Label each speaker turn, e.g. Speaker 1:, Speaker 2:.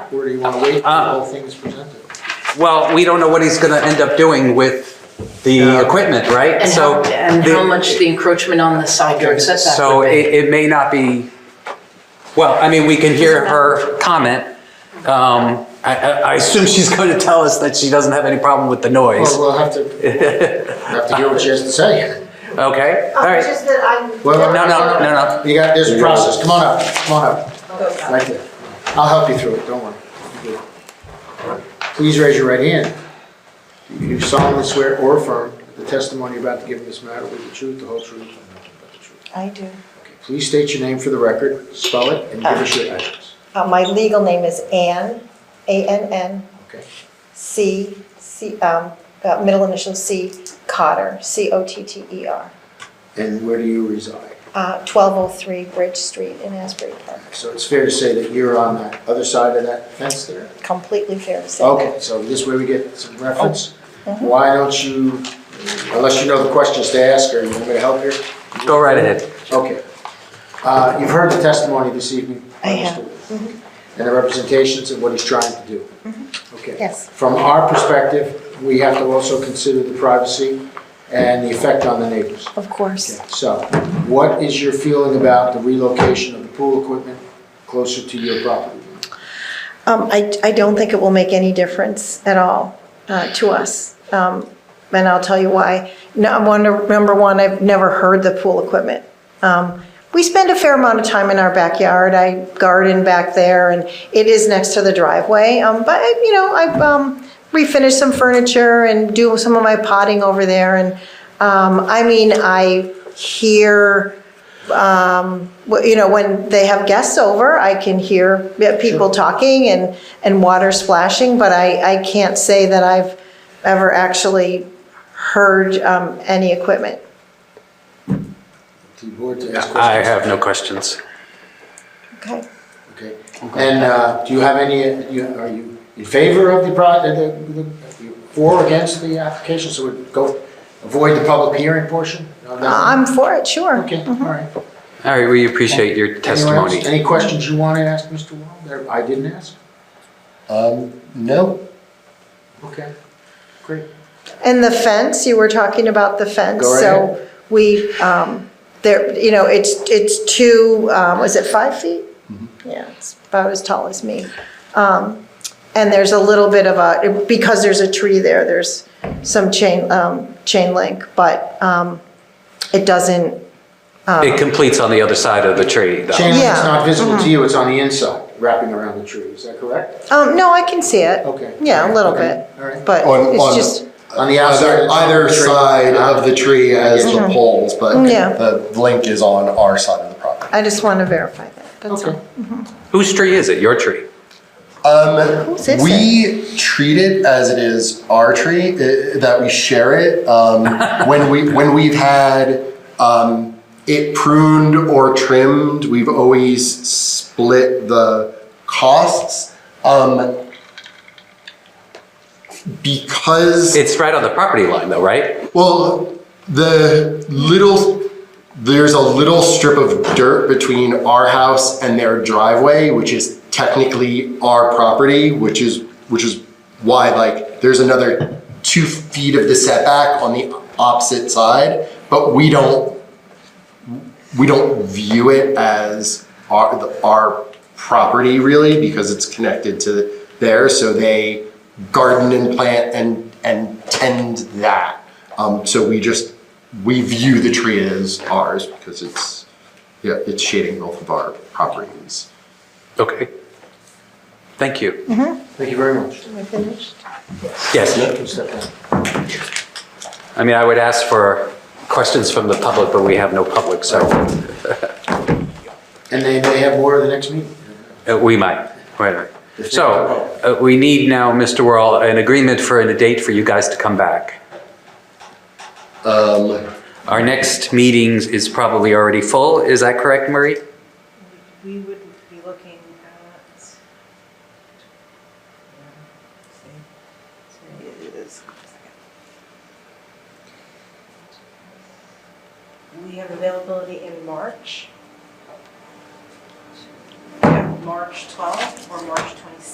Speaker 1: back, or do you want to wait until
Speaker 2: Ah.
Speaker 1: all things presented?
Speaker 2: Well, we don't know what he's gonna end up doing with the
Speaker 1: Yeah.
Speaker 2: equipment, right?
Speaker 3: And
Speaker 2: So
Speaker 3: how, and how
Speaker 2: the-
Speaker 3: much the encroachment on the side yard setback
Speaker 2: So
Speaker 3: would be.
Speaker 2: it, it may not be, well, I mean, we can hear her comment. Um, I, I, I assume she's going to tell us that she doesn't have any problem with the noise.
Speaker 1: Well, we'll have to, we'll have to hear what she has to say.
Speaker 2: Okay, all
Speaker 4: Oh, it's
Speaker 2: right.
Speaker 4: just that I'm.
Speaker 1: Well,
Speaker 2: No, no, no, no.
Speaker 1: You got, there's a process, come on up, come on up, right there. I'll help you through it, don't worry. You're good. Please raise your right hand. Do You solemnly swear or affirm that the testimony you're about to give in this matter will be the truth, the whole truth, and nothing but the truth.
Speaker 5: I do.
Speaker 1: Okay, Please state your name for the record, spell it, and give us your address.
Speaker 5: Uh, My legal name is Ann, A-N-N,
Speaker 1: Okay.
Speaker 5: C, C, um, uh, middle initial C, Cotter, C-O-T-T-E-R,
Speaker 1: And where do you reside?
Speaker 5: E uh, 1203 Bridge Street in Asbury Park.
Speaker 1: So it's fair to say that you're on the other side of that fence there?
Speaker 5: Completely fair to say.
Speaker 1: Okay, so this way we get some reference.
Speaker 5: Oh, mm-hmm.
Speaker 1: Why don't you, unless you know the questions to ask, or you want me to help here?
Speaker 2: Go right ahead.
Speaker 1: Okay. Uh, You've heard the testimony this evening.
Speaker 5: I have. Mm-hmm.
Speaker 1: understood, And the representations and what he's trying to do. Okay.
Speaker 5: Yes.
Speaker 1: From our perspective, we have to also consider the privacy and the effect on the neighbors.
Speaker 5: Of course.
Speaker 1: Okay, So what is your feeling about the relocation of the pool equipment closer to your property?
Speaker 5: Um, I, I don't think it will make any difference at all uh, to us. Um, And I'll tell you why. No, I'm one, number one, I've never heard the pool equipment. Um, We spend a fair amount of time in our backyard. I garden back there and it is next to the driveway. Um, But, you know, I've um, refinished some furniture and do some of my potting over there. And, um, I mean, I hear Um, well, you know, when they have guests over, I can hear yeah, people talking and, and water splashing, but I, I can't say that I've ever actually heard um, any equipment.
Speaker 1: To the board to ask questions?
Speaker 2: I have no questions.
Speaker 5: Okay.
Speaker 1: Okay. And uh, do you have any, uh, you- are you in favor of the pro- the the- the- for or against the application? So we go, avoid the public hearing portion? No, nothing?
Speaker 5: Uh, I'm for it, sure.
Speaker 1: Okay, all right. Anyone
Speaker 2: All right, we appreciate your
Speaker 1: else?
Speaker 2: testimony.
Speaker 1: Any questions you want to ask Mr. Wall that I didn't ask?
Speaker 6: Um, no,
Speaker 1: Okay, great.
Speaker 5: And the fence, you were talking about the fence.
Speaker 1: Go right
Speaker 5: So we, um, there, you know, it's, it's two, um, was it five feet?
Speaker 1: Mm-hmm.
Speaker 5: Yeah, it's about as tall as me. Um, and there's a little bit of a, because there's a tree there, there's some chain, um, chain link, but, um, it doesn't,
Speaker 2: It completes on the other side of the tree, though.
Speaker 1: Chain link's
Speaker 5: Yeah.
Speaker 1: not visible to you, it's on the inside, wrapping around the tree, is that correct?
Speaker 5: um, no, I can see it.
Speaker 1: Okay.
Speaker 5: Yeah, a little
Speaker 1: Okay,
Speaker 5: bit,
Speaker 1: All right.
Speaker 5: but
Speaker 6: On- on-
Speaker 5: it's just,
Speaker 1: On the outside.
Speaker 6: either, either side of the tree as the poles, but
Speaker 5: Yeah.
Speaker 6: the link is on our side of the property.
Speaker 5: I just want to verify that, that's
Speaker 1: Okay.
Speaker 5: all.
Speaker 2: Whose tree is it? Your tree?
Speaker 6: Um,
Speaker 5: Whose is
Speaker 6: we treat it as it is our tree, uh, that we share it. Um, when we, when we've had, um, it pruned or trimmed, we've always split the costs. Um, because.
Speaker 2: It's right on the property line, though, right?
Speaker 6: Well, the little, there's a little strip of dirt between our house and their driveway, which is technically our property, which is, which is why like, there's another two feet of the setback on the opposite side, but we don't, we don't view it as our, the- our property really, because it's connected to there, so they garden and plant and, and tend that. Um, so we just, we view the tree as ours because it's, yeah, it's shading both of our properties.
Speaker 2: Okay. Thank you.
Speaker 1: Thank you very much.
Speaker 5: Am I finished?
Speaker 2: Yes,
Speaker 1: You step down.
Speaker 2: I mean, I would ask for questions from the public, but we have no public, so
Speaker 1: And they may have more at the next meeting.
Speaker 2: uh, we might. Right, right.
Speaker 1: If
Speaker 2: So uh, we need now, Mr. Worrell, an agreement for, and a date for you guys to come back.
Speaker 6: Um,
Speaker 2: Our next meetings is probably already full. Is that correct, Marie?
Speaker 7: We would be looking at. We have availability in March. Yeah, March 12th or March 26th.